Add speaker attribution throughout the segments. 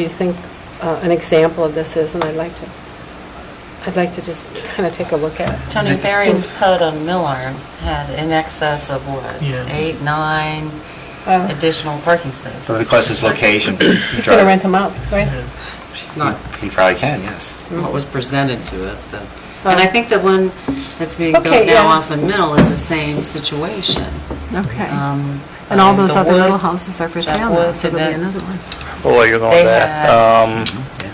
Speaker 1: Do you think uh, an example of this is, and I'd like to, I'd like to just kind of take a look at it.
Speaker 2: Tony Barron's pod on Millard had in excess of what,
Speaker 3: Yeah.
Speaker 2: eight, nine
Speaker 1: Uh,
Speaker 2: additional parking spaces?
Speaker 4: So because it's location,
Speaker 1: He's going to rent them out, right?
Speaker 5: It's not
Speaker 4: he probably can, yes.
Speaker 5: what was presented to us, but, and I think the one that's being
Speaker 1: Okay,
Speaker 5: built
Speaker 1: yeah.
Speaker 5: now off of Mill is the same situation.
Speaker 1: Okay.
Speaker 5: Um,
Speaker 1: And all
Speaker 5: by
Speaker 1: those
Speaker 5: the
Speaker 1: other little
Speaker 5: woods,
Speaker 1: houses are for
Speaker 2: that
Speaker 1: sale now,
Speaker 2: woods
Speaker 1: so
Speaker 2: and
Speaker 1: there'll be
Speaker 2: that-
Speaker 1: another one.
Speaker 3: Well, you know
Speaker 2: They
Speaker 3: that. um,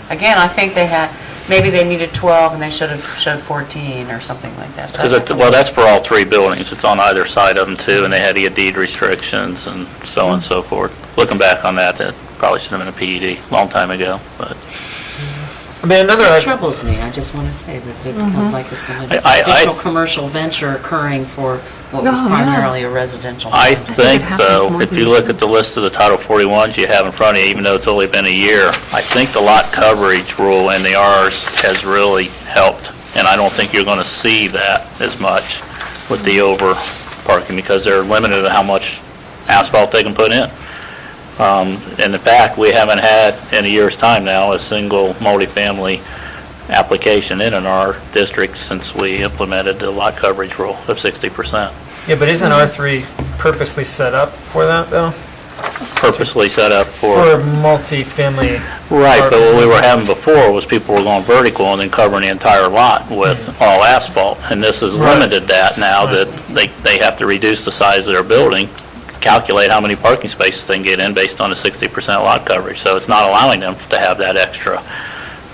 Speaker 2: Again, I think they had, maybe they needed 12 and they should have showed 14 or something like that.
Speaker 3: Because, it- well, that's for all three buildings. It's on either side of them, too, and they had to get deed restrictions and so on and so forth. Looking back on that, that probably should have been a PED, long time ago, but... I mean, another...
Speaker 5: It troubles me, I just want to say that it becomes like it's an
Speaker 3: Uh, Mm-hmm. I- I- I-
Speaker 5: additional commercial venture occurring for what was
Speaker 1: Oh, yeah.
Speaker 5: primarily a residential.
Speaker 3: I
Speaker 5: building.
Speaker 3: think,
Speaker 1: happens
Speaker 3: though,
Speaker 1: more
Speaker 3: if
Speaker 1: than
Speaker 3: you
Speaker 1: you
Speaker 3: look
Speaker 1: think.
Speaker 3: at the list of the Title 41s you have in front of you, even though it's only been a year, I think the lot coverage rule in the Rs has really helped, and I don't think you're going to see that as much with the over parking, because they're limited to how much asphalt they can put in. Um, And in fact, we haven't had, in a year's time now, a single multifamily application in an R district since we implemented the lot coverage rule of 60%.
Speaker 6: Yeah, but isn't R3 purposely set up for that, though?
Speaker 3: Purposely set up
Speaker 6: For multifamily?
Speaker 3: Right, but what we
Speaker 6: apartment.
Speaker 3: were having before was people were going vertical and then covering the entire lot with all asphalt. And this has
Speaker 6: Mm-hmm. Right.
Speaker 3: limited that now
Speaker 6: I
Speaker 3: that they, they have to reduce the size of their building, calculate how many parking spaces they can get in based on the 60% lot coverage. So it's not allowing them to have that extra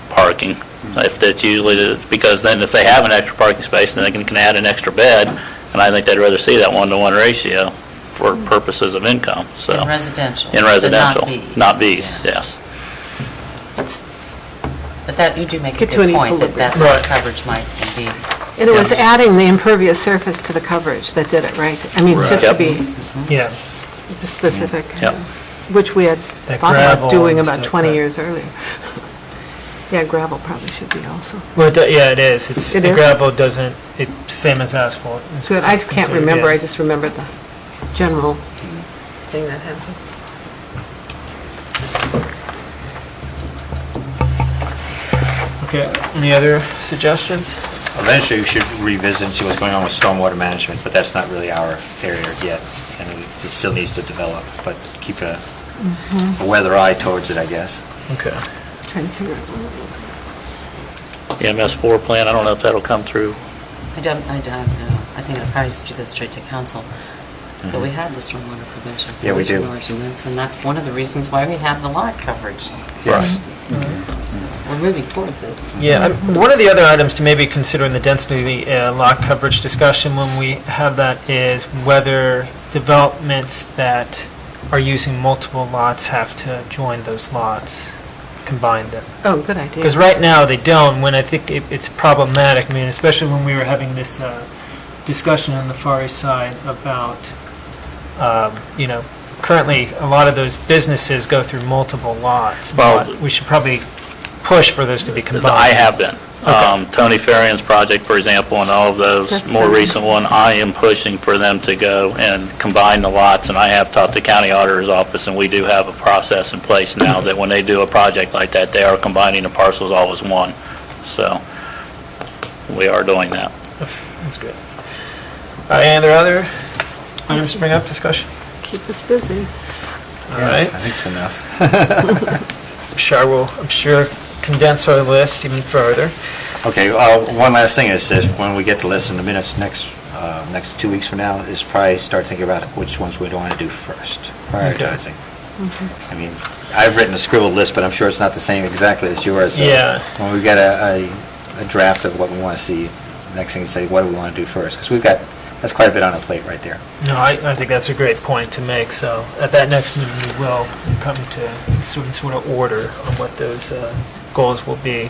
Speaker 3: parking.
Speaker 6: Mm-hmm.
Speaker 3: If that's usually, the- because then if they have an extra parking space, then they can can add an extra bed. And I think they'd rather see that one-to-one ratio for
Speaker 6: Mm-hmm.
Speaker 3: purposes of income, so.
Speaker 2: In residential.
Speaker 3: In
Speaker 2: but
Speaker 3: residential, not Bs,
Speaker 2: Yeah.
Speaker 3: yes.
Speaker 2: But that, you do make a
Speaker 1: Get to
Speaker 2: good
Speaker 1: an
Speaker 2: point that that
Speaker 6: equilibrium.
Speaker 2: lot coverage might be,
Speaker 1: And it was adding the impervious surface to the coverage that did it, right? I mean, just to
Speaker 3: Yep.
Speaker 1: be
Speaker 6: Yeah.
Speaker 1: specific, uh,
Speaker 3: Yep.
Speaker 1: which we had
Speaker 6: That
Speaker 1: thought about
Speaker 6: gravel
Speaker 1: doing
Speaker 6: and
Speaker 1: about
Speaker 6: stuff,
Speaker 1: 20
Speaker 6: right.
Speaker 1: years earlier. Yeah, gravel probably should be also.
Speaker 6: Well, it do- yeah, it is. It's,
Speaker 1: It
Speaker 6: the
Speaker 1: is?
Speaker 6: gravel doesn't, it's same as asphalt. It's
Speaker 1: So I just can't
Speaker 6: considered,
Speaker 1: remember,
Speaker 6: yeah.
Speaker 1: I just remember the general thing that happened.
Speaker 6: Okay, any other suggestions?
Speaker 4: Eventually, we should revisit and see what's going on with stormwater management, but that's not really our area yet, and it still needs to develop, but keep a
Speaker 1: Mm-hmm.
Speaker 4: a weather eye towards it, I guess.
Speaker 6: Okay.
Speaker 1: Trying to figure out.
Speaker 3: EMS E four plan, I don't know if that'll come through.
Speaker 5: I don't, I don't know, I think it probably should go straight to council, but
Speaker 3: Mm-hmm.
Speaker 5: we have the stormwater prevention.
Speaker 4: Yeah, we do.
Speaker 5: provision ordinance, And that's one of the reasons why we have the lot coverage,
Speaker 4: Yes.
Speaker 5: so we're moving towards it.
Speaker 6: Yeah, I'm- one of the other items to maybe consider in the density uh, lot coverage discussion when we have that is whether developments that are using multiple lots have to join those lots, combine them.
Speaker 1: Oh, good idea.
Speaker 6: Because right now, they don't, when I think it- it's problematic, I mean, especially when we were having this uh, discussion on the Far East Side about, um, you know, currently, a lot of those businesses go through multiple lots.
Speaker 3: Well-
Speaker 6: but We should probably push for those to be combined.
Speaker 3: I have been. Um, Tony Farian's project, for example, and all of those,
Speaker 1: That's
Speaker 3: more
Speaker 1: fine.
Speaker 3: recent one, I am pushing for them to go and combine the lots, and I have taught the county auditor's office, and we do have a process in place now that when they do a project like that, they are combining the parcels all as one. So, we are doing that.
Speaker 6: That's, that's good. All right, Any other other items to bring up, discussion?
Speaker 1: Keep us busy.
Speaker 6: All right.
Speaker 4: I think it's enough.
Speaker 6: I'm sure we'll, I'm sure condense our list even further.
Speaker 4: Okay, uh, one last thing is, that when we get the list in the minutes next, uh, next two weeks from now, is probably start thinking about which ones we want to do first, prioritizing. I mean, I've written a scribbled list, but I'm sure it's not the same exactly as yours. so
Speaker 6: Yeah.
Speaker 4: When we get a, a- a draft of what we want to see, next thing is say, what do we want to do first? Because we've got, that's quite a bit on our plate right there.
Speaker 6: No, I, I think that's a great point to make, so at that next meeting, we will come to some sort of order on what those uh, goals will be.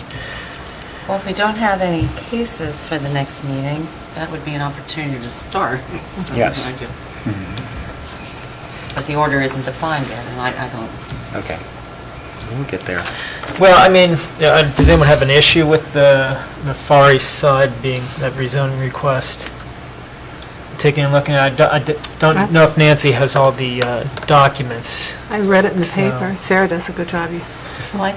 Speaker 5: Well, if we don't have any cases for the next meeting, that would be an opportunity to start. something
Speaker 4: Yes.
Speaker 5: like it. But the order isn't defined yet, and I, I don't,
Speaker 4: Okay. We'll get there.
Speaker 6: Well, I mean, yeah, uh, does anyone have an issue with the, the Far East Side being, that rezoning request? Taking a look, and I do- I d-
Speaker 1: Huh?
Speaker 6: don't know if Nancy has all the uh, documents.
Speaker 1: I read it in the
Speaker 6: So-
Speaker 1: paper. Sarah does a good job. You-